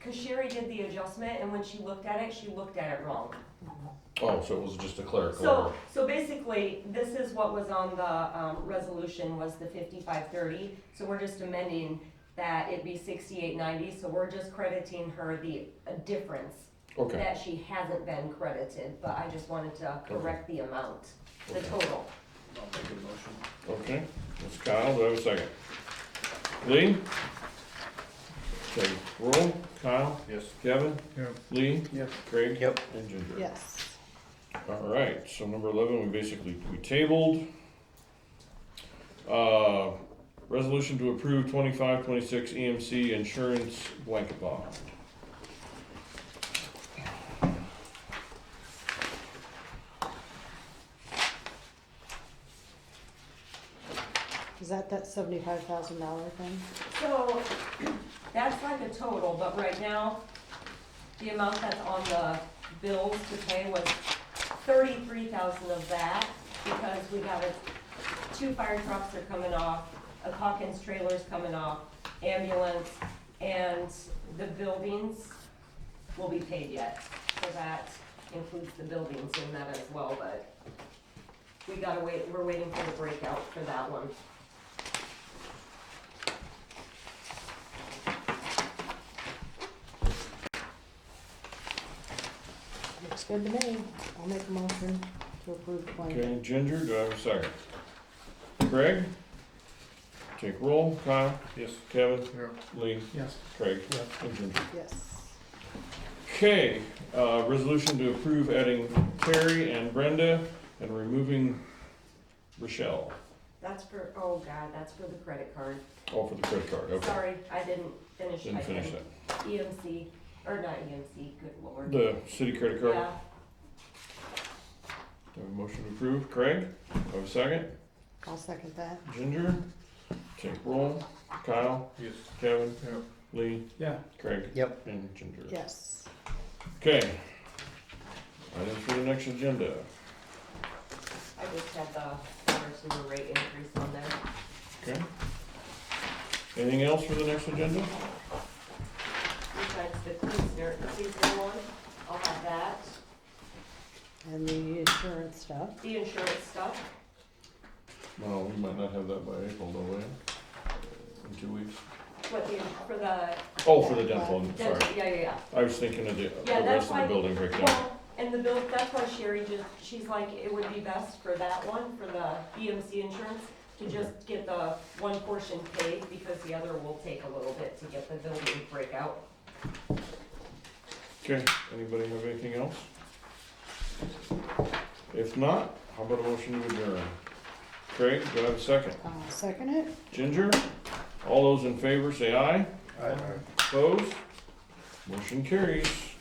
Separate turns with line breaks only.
Cause Sherry did the adjustment and when she looked at it, she looked at it wrong.
Oh, so it was just a clerical
So,
error.
so basically, this is what was on the, um, resolution was the fifty-five thirty, so we're just amending that it be sixty-eight ninety, so we're just crediting her the uh, difference
Okay,
that she hasn't been credited, but I just wanted to correct the amount, the
Okay.
total.
I'll make a motion.
okay. That's Kyle, do I have a second? Lee? Okay, roll, Kyle,
Yes.
Kevin,
Yeah.
Lee,
Yes.
Craig.
Yep.
And Ginger.
Yes.
All right, so number eleven, we basically, we tabled. Uh, resolution to approve twenty-five, twenty-six EMC insurance blanket bond.
Is that that seventy-five thousand dollar thing?
So, that's like a total, but right now, the amount that's on the bills to pay was thirty-three thousand of that, because we have a, two fire trucks are coming off, a Hawkins trailer's coming off, ambulance, and the buildings will be paid yet, so that includes the buildings in that as well, but we gotta wait, we're waiting for the breakout for that one.
Looks good to me. I'll make a motion to approve the blanket.
Okay, Ginger, do I have a second? Craig? Take roll, Kyle,
Yes.
Kevin,
Yeah.
Lee,
Yes.
Craig,
Yeah.
and Ginger.
Yes.
Okay, uh, resolution to approve adding Terry and Brenda and removing Rochelle.
That's for, oh god, that's for the credit card.
All Oh, for the credit card, okay.
Sorry, I didn't finish.
Didn't
I
finish
didn't.
that.
EMC, or not EMC, good lord.
The city credit card,
Yeah,
do I have a motion to approve? Craig, do I have a second?
I'll second that.
Ginger? Take roll, Kyle,
Yes.
Kevin,
Yeah.
Lee,
Yeah.
Craig.
Yep.
And Ginger.
Yes.
Okay. Items for the next agenda.
I just had the water sewer rate increase on there.
Okay. Anything else for the next agenda?
Besides the Queensner, Queensner one, I'll have that.
And the insurance stuff.
The insurance stuff,
No, we might not have that by April, though, will In two weeks?
what the, for the
Oh, for the dental, I'm sorry.
dental, yeah, yeah, yeah.
I was thinking of the,
Yeah,
the
that's
rest of the
why-
building breakdown.
Well, and the bill, that's why Sherry just, she's like, it would be best for that one, for the EMC insurance, to just get the one portion paid, because the other will take a little bit to get the building breakout.
Okay, anybody have anything else? If not, how about a motion to adjourn? Craig, do I have a second?
I'll second it.
Ginger? All those in favor, say aye. Opposed? Motion carries.